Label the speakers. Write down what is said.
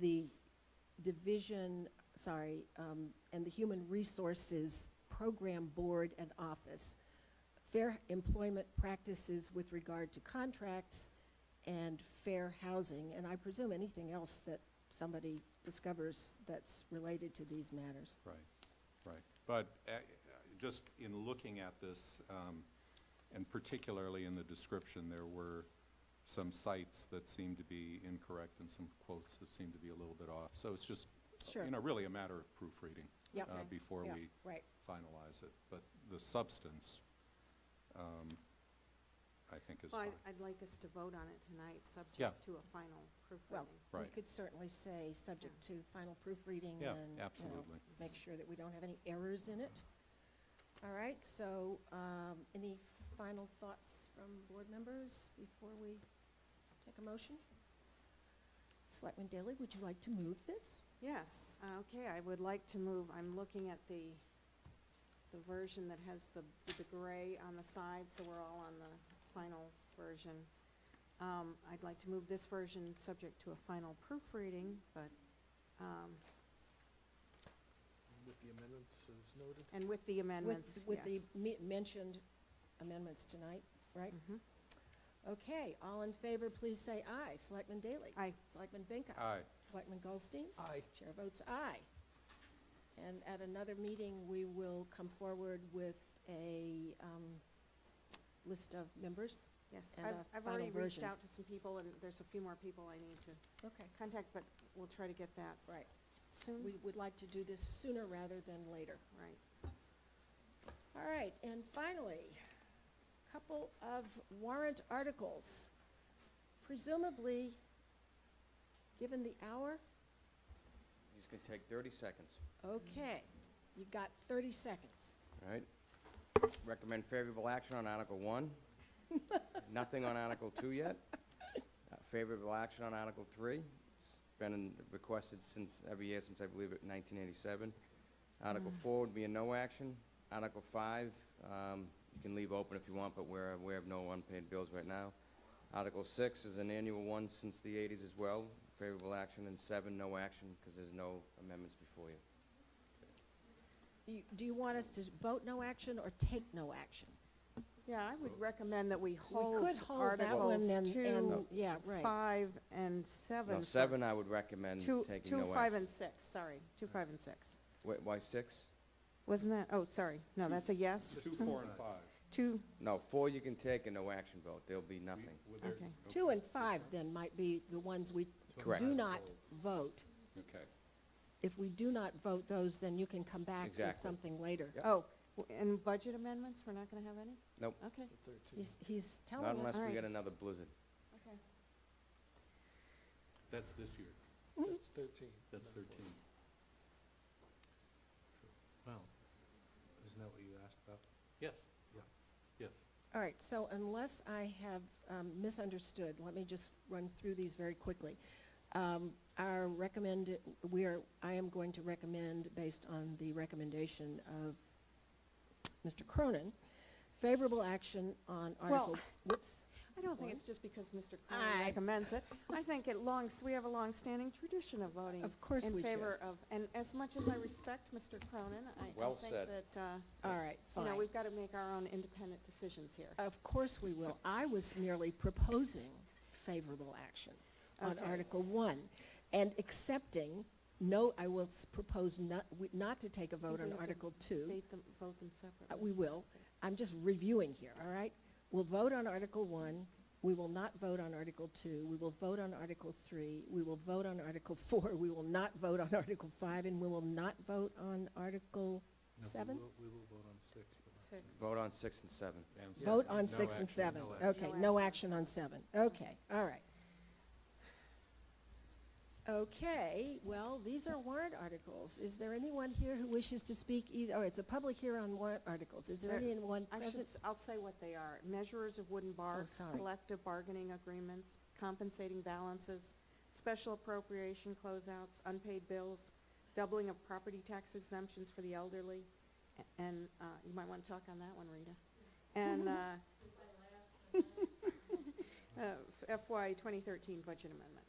Speaker 1: the division, sorry, um, and the Human Resources Program Board and Office. Fair employment practices with regard to contracts and fair housing, and I presume anything else that somebody discovers that's related to these matters.
Speaker 2: Right, right. But uh, uh, just in looking at this, um, and particularly in the description, there were some sites that seemed to be incorrect and some quotes that seemed to be a little bit off. So it's just,
Speaker 1: Sure.
Speaker 2: you know, really a matter of proofreading.
Speaker 1: Yep.
Speaker 2: uh,
Speaker 1: Okay.
Speaker 2: Before
Speaker 1: Yeah,
Speaker 2: we
Speaker 1: Right,
Speaker 2: finalize it. But the substance, um, I think is
Speaker 3: Well,
Speaker 2: fine.
Speaker 3: I'd- I'd like us to vote on it tonight,
Speaker 2: Yeah.
Speaker 3: subject to a final
Speaker 1: well,
Speaker 3: proofreading.
Speaker 1: we
Speaker 2: Right.
Speaker 1: could certainly say, subject to final proofreading and,
Speaker 2: Yeah,
Speaker 1: you know,
Speaker 2: absolutely.
Speaker 1: make sure that we don't have any errors in it. All right, so um, any final thoughts from board members before we take a motion? Selectman Daley, would you like to move this?
Speaker 3: Yes, uh, okay, I would like to move, I'm looking at the, the version that has the, the gray on the side, so we're all on the final version. Um, I'd like to move this version, subject to a final proofreading, but, um,
Speaker 4: With the amendments as noted?
Speaker 3: and with the amendments,
Speaker 1: With-
Speaker 3: yes.
Speaker 1: With the me- mentioned amendments tonight, right?
Speaker 3: Mhm.
Speaker 1: Okay, all in favor, please say aye. Selectman Daley?
Speaker 3: Aye.
Speaker 1: Selectman Benka?
Speaker 2: Aye.
Speaker 1: Selectman Goldstein?
Speaker 4: Aye.
Speaker 1: Chair votes aye. And at another meeting, we will come forward with a um, list of members.
Speaker 3: Yes,
Speaker 1: and
Speaker 3: I've,
Speaker 1: a
Speaker 3: I've
Speaker 1: final
Speaker 3: already reached
Speaker 1: version.
Speaker 3: out to some people, and there's a few more people I need to
Speaker 1: Okay.
Speaker 3: contact, but we'll try to get that
Speaker 1: Right.
Speaker 3: soon,
Speaker 1: We would like to do this sooner rather than later.
Speaker 3: right?
Speaker 1: All right, and finally, couple of warrant articles. Presumably, given the hour,
Speaker 5: He's gonna take thirty seconds,
Speaker 1: okay, you've got 30 seconds.
Speaker 5: all right? Recommend favorable action on Article one. Nothing on Article two yet. Uh, Favorable action on Article three. It's been in- requested since, every year since, I believe, it nineteen eighty-seven. Article four would be a no action. Article five, um, you can leave open if you want, but we're aware of no unpaid bills right now. Article six is an annual one since the eighties as well. Favorable action, and seven, no action, because there's no amendments before you.
Speaker 1: You- Do you want us to vote no action or take no action?
Speaker 3: Yeah, I would recommend that we
Speaker 1: We
Speaker 3: hold
Speaker 1: could hold that one
Speaker 3: Articles
Speaker 1: and, and,
Speaker 3: two,
Speaker 1: yeah, right.
Speaker 3: five, and seven.
Speaker 5: No, seven I would recommend
Speaker 3: Two,
Speaker 5: taking no
Speaker 3: two,
Speaker 5: action.
Speaker 3: five, and six, sorry, two, five, and six.
Speaker 5: Wait, why six?
Speaker 3: Wasn't that, oh, sorry, no, that's a yes.
Speaker 2: Two, four, and five.
Speaker 3: Two,
Speaker 5: No, four you can take and no action vote, there'll be
Speaker 2: We-
Speaker 5: nothing.
Speaker 2: were there-
Speaker 3: Okay.
Speaker 1: Two and five then might be the ones we
Speaker 5: Correct.
Speaker 1: do not vote.
Speaker 2: Okay.
Speaker 1: If we do not vote those, then you can come back with
Speaker 5: Exactly.
Speaker 1: something later.
Speaker 5: Yep.
Speaker 3: oh, w- and budget amendments, we're not gonna have any?
Speaker 5: Nope,
Speaker 3: Okay,
Speaker 4: The thirteen.
Speaker 1: He's, he's
Speaker 5: not
Speaker 1: telling
Speaker 5: unless
Speaker 1: us,
Speaker 5: we
Speaker 3: Alright.
Speaker 5: get another blizzard.
Speaker 3: okay.
Speaker 2: That's this year.
Speaker 4: That's thirteen.
Speaker 2: That's
Speaker 4: not fourteen.
Speaker 2: 13.
Speaker 4: Well, isn't that what you asked about?
Speaker 2: Yes,
Speaker 4: Yeah.
Speaker 2: yes.
Speaker 1: all right, so unless I have um, misunderstood, let me just run through these very quickly. Um, Our recommend, we are, I am going to recommend, based on the recommendation of Mr. Cronin, favorable action on Article, whoops.
Speaker 3: I don't think
Speaker 1: One.
Speaker 3: it's just because Mr.
Speaker 1: Aye.
Speaker 3: Cronin recommends it. I think it longs, we have a long-standing tradition of voting.
Speaker 1: Of course we
Speaker 3: In
Speaker 1: do.
Speaker 3: favor of, and as much as I respect Mr. Cronin, I I
Speaker 5: Well
Speaker 3: think
Speaker 5: said.
Speaker 3: that, uh,
Speaker 1: All right,
Speaker 3: you
Speaker 1: fine.
Speaker 3: know, we've gotta make our own independent decisions here.
Speaker 1: Of course we will. I was merely proposing favorable action on
Speaker 3: Okay.
Speaker 1: Article One and accepting, no, I will s- propose not, we- not to take a vote
Speaker 3: Maybe we
Speaker 1: on
Speaker 3: can
Speaker 1: Article Two.
Speaker 3: Vote them, vote them
Speaker 1: Uh,
Speaker 3: separately.
Speaker 1: We will. I'm just reviewing here, all right? We'll vote on Article One. We will not vote on Article Two. We will vote on Article Three. We will vote on Article Four. We will not vote on Article Five, and we will not vote on Article
Speaker 4: No, we
Speaker 1: Seven?
Speaker 4: will- We will vote on six. but not
Speaker 3: Six.
Speaker 5: Vote on six and seven.
Speaker 2: And
Speaker 1: Vote
Speaker 2: seven.
Speaker 1: on
Speaker 2: No
Speaker 1: six and
Speaker 2: action,
Speaker 1: seven.
Speaker 2: no action.
Speaker 1: Okay, no action on seven. Okay, all right. Okay, well, these are warrant articles. Is there anyone here who wishes to speak either, oh, it's a public hearing on warrant articles. Is there
Speaker 3: There-
Speaker 1: anyone
Speaker 3: I should,
Speaker 1: present? Oh,
Speaker 3: s- I'll say what they are. Measures of wooden bars,
Speaker 1: sorry.
Speaker 3: collective bargaining agreements, compensating balances, special appropriation closeouts, unpaid bills, doubling of property tax exemptions for the elderly, a- and, uh, you might want to talk on that one, Rita. And, uh, uh, FY 2013 budget amendment.